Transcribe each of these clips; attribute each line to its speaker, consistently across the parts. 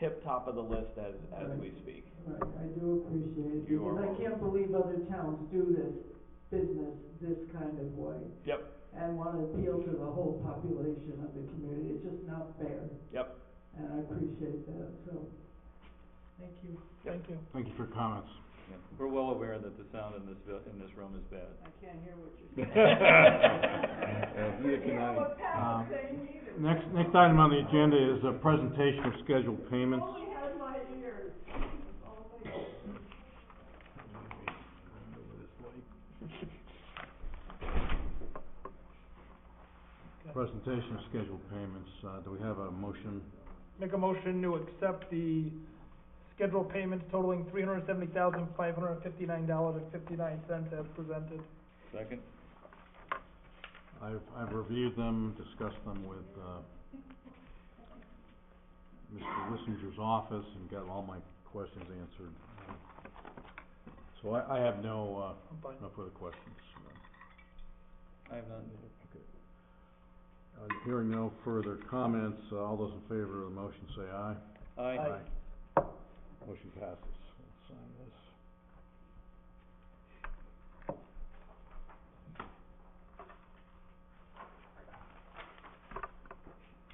Speaker 1: tip top of the list as, as
Speaker 2: Right.
Speaker 1: we speak.
Speaker 2: Right, I do appreciate it,
Speaker 1: You are
Speaker 2: because I
Speaker 1: welcome.
Speaker 2: can't believe other towns do this business this kind of way.
Speaker 1: Yep.
Speaker 2: And want to appeal to the whole population of the community, it's just not fair.
Speaker 1: Yep.
Speaker 2: And I appreciate that, so, thank you.
Speaker 1: Thank you.
Speaker 3: Thank you for your comments.
Speaker 1: We're well aware that the sound in this, vil- in this room is bad.
Speaker 2: I can't hear what you're
Speaker 3: Yeah, neither can I. Um, Next, next item on the agenda is a presentation of scheduled payments.
Speaker 2: had my ears.
Speaker 3: Presentation of scheduled payments. Uh, do we have a motion?
Speaker 4: Make a motion to accept the scheduled payments totaling three hundred seventy thousand, five hundred fifty-nine dollars and fifty-nine cents as presented.
Speaker 1: Second?
Speaker 3: I've, I've reviewed them, discussed them with, uh, Mr. Lissinger's office and got all my questions answered. So I, I have no,
Speaker 4: I'm fine.
Speaker 3: uh, no further questions.
Speaker 1: I have none.
Speaker 3: Uh, hearing no further comments, uh, all those in favor of the motion say aye.
Speaker 1: Aye.
Speaker 4: Aye.
Speaker 3: Motion passes. Let's sign this.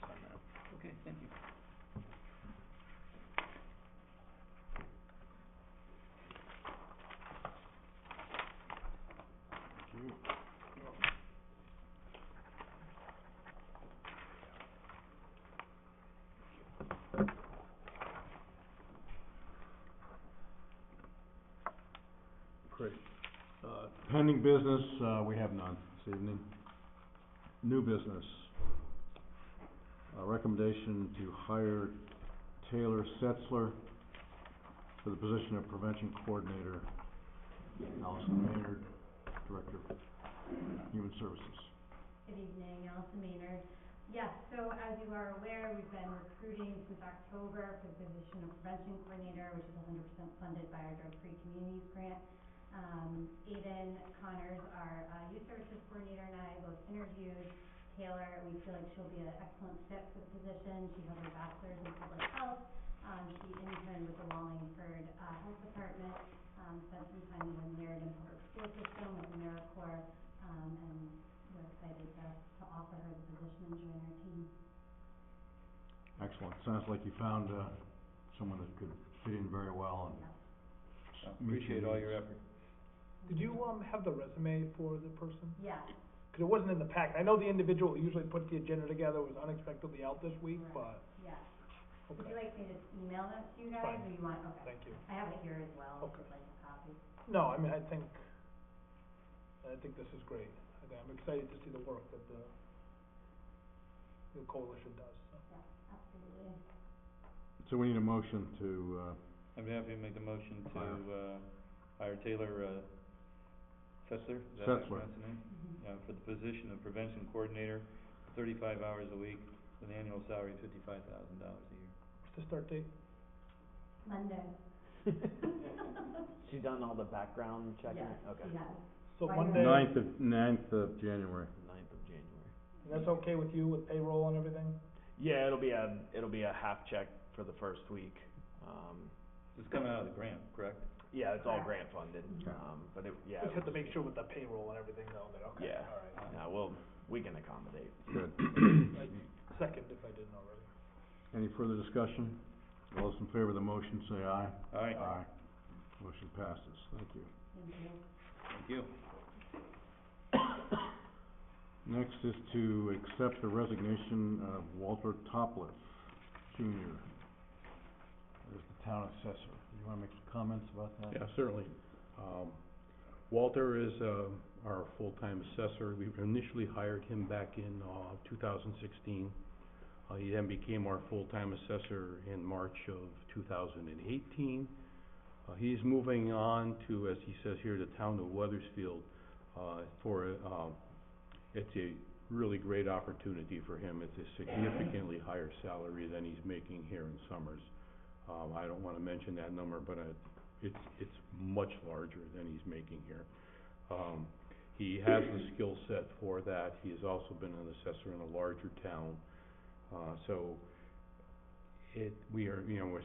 Speaker 3: Sign that.
Speaker 1: Okay, thank you.
Speaker 3: Thank you. Great. Uh, Pending business, uh, we have none this evening. New business. A recommendation to hire Taylor Setzler for the position of prevention coordinator. Allison Maynard, Director of Human Services.
Speaker 5: Good evening, Allison Maynard. Yes, so as you are aware, we've been recruiting since October for the position of prevention coordinator, which is hundred percent funded by our drug-free communities grant. Um, Aiden Connors, our, uh, youth services coordinator, and I both interviewed Taylor, and we feel like she'll be an excellent fit for the position. She has her bachelor's in public health. Um, she interned with the Wallingford, uh, Health Department, um, spent some time in the Meriden Public School System with AmeriCorps, um, and we're excited to, to offer her the position and join our team.
Speaker 3: Excellent. Sounds like you found, uh, someone that could fit in very well and.
Speaker 5: Yes.
Speaker 3: s-
Speaker 1: Oh,
Speaker 3: meet
Speaker 1: Appreciate all your
Speaker 3: needs.
Speaker 1: effort.
Speaker 4: Did you, um, have the resume for the person?
Speaker 5: Yeah,
Speaker 4: Cause it wasn't in the pack. I know the individual who usually puts the agenda together was unexpectedly out this week, but,
Speaker 5: yeah. Would you
Speaker 4: okay,
Speaker 5: like me to email that to you guys,
Speaker 4: Fine.
Speaker 5: or you want, okay.
Speaker 4: thank you.
Speaker 5: I have it here as well, if
Speaker 4: Okay.
Speaker 5: you'd like a copy.
Speaker 4: No, I mean, I think, I think this is great. I think I'm excited to see the work that the, the coalition does, so.
Speaker 5: Yeah, absolutely.
Speaker 3: So we need a motion to, uh,
Speaker 1: I'm happy to make the motion to, uh, hire Taylor, uh, Setzler? Is that how you
Speaker 3: Setzler.
Speaker 1: pronounce the name?
Speaker 5: Mhm.
Speaker 1: uh, for the position of prevention coordinator, thirty-five hours a week, with an annual salary of fifty-five thousand dollars a year.
Speaker 4: What's the start date?
Speaker 5: Monday.
Speaker 6: She done all the background checking?
Speaker 5: Yes,
Speaker 6: Okay.
Speaker 5: yes.
Speaker 4: So
Speaker 5: Why
Speaker 4: Monday, and
Speaker 3: ninth of, ninth of January.
Speaker 6: Ninth of January.
Speaker 4: that's okay with you with payroll and everything?
Speaker 6: Yeah, it'll be a, it'll be a half check for the first week. Um,
Speaker 1: This is coming out of the grant, correct?
Speaker 6: yeah, it's all grant funded,
Speaker 3: Okay.
Speaker 6: um, but it, yeah.
Speaker 4: Just
Speaker 6: it
Speaker 4: have to
Speaker 6: was-
Speaker 4: make sure with the payroll and everything though, that, okay,
Speaker 6: Yeah. Uh-huh.
Speaker 4: all right.
Speaker 6: No, well, we can accommodate.
Speaker 3: Good.
Speaker 4: Second, if I didn't already.
Speaker 3: Any further discussion? All those in favor of the motion say aye.
Speaker 1: All right,
Speaker 3: Motion passes. Thank you.
Speaker 5: Thank you.
Speaker 1: thank you.
Speaker 3: Next is to accept the resignation of Walter Topliff Junior. As the town assessor. You wanna make some comments about that?
Speaker 7: Yeah, certainly. Um, Walter is, uh, our full-time assessor. We initially hired him back in, uh, two thousand sixteen. Uh, he then became our full-time assessor in March of two thousand and eighteen. Uh, he's moving on to, as he says here, the town of Weathersfield, uh, for, a, um, it's a really great opportunity for him. It's a significantly higher salary than he's making here in Summers. Um, I don't wanna mention that number, but I, it's, it's much larger than he's making here. Um, he has the skill set for that, he has also been an assessor in a larger town, uh, so
Speaker 3: it, we are, you know, we're